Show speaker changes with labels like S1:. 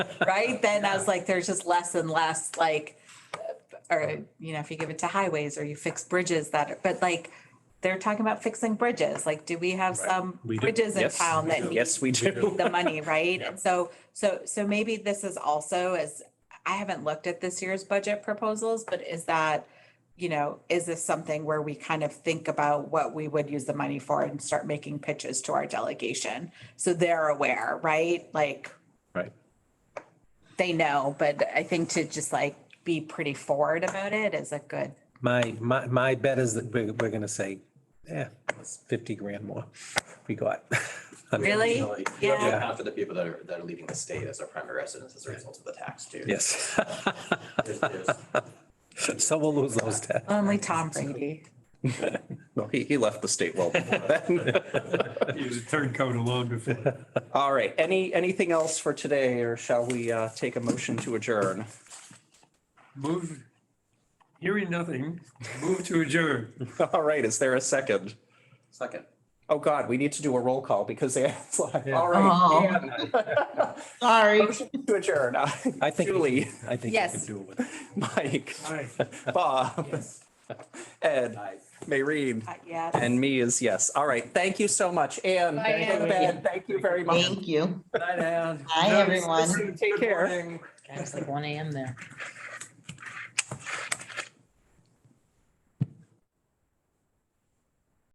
S1: right? Then I was like, there's just less and less like, uh, or, you know, if you give it to highways or you fix bridges that, are- but like, they're talking about fixing bridges. Like, do we have some
S2: We do.
S1: bridges in
S3: Yes.
S1: town that need
S3: Yes, we do.
S1: the money, right? And so, so, so maybe this is also as, I haven't looked at this year's budget proposals, but is that, you know, is this something where we kind of think about what we would use the money for and start making pitches to our delegation? So they're aware, right? Like,
S3: Right.
S1: they know, but I think to just like be pretty forward about it is a good,
S2: My, my, my bet is that we're, we're gonna say, yeah, it's fifty grand more we got.
S1: really?
S4: You have to
S1: Yeah.
S4: account for the people that are, that are leaving the state as their primary residence as a result of the tax too.
S2: Yes,
S4: There's- there's-
S2: so we'll lose those tax.
S1: Only Tom Brady.
S3: No, he, he left the state well before then.
S5: He was a turncoat alone before.
S3: All right, any, anything else for today or shall we, uh, take a motion to adjourn?
S5: Move, hearing nothing, move to adjourn.
S3: All right, is there a second?
S4: Second.
S3: Oh, God, we need to do a roll call because Anne's like, all
S1: Oh.
S3: right. Anne.
S1: Sorry.
S3: Motion to adjourn.
S2: I think, we
S3: Julie,
S2: can- I think we
S1: Yes.
S2: can do it with.
S3: Mike,
S5: Aye.
S3: Bob, Ed,
S4: Aye.
S3: Maureen,
S1: Yes.
S3: and me is yes. All right, thank you so much. Anne,
S6: Bye,
S3: thank you,
S6: Anne.
S3: Ben. Thank you very much.
S6: Thank you.
S5: Night, Ann.
S6: Hi, everyone.
S3: Take care.
S6: God, It's like one AM there.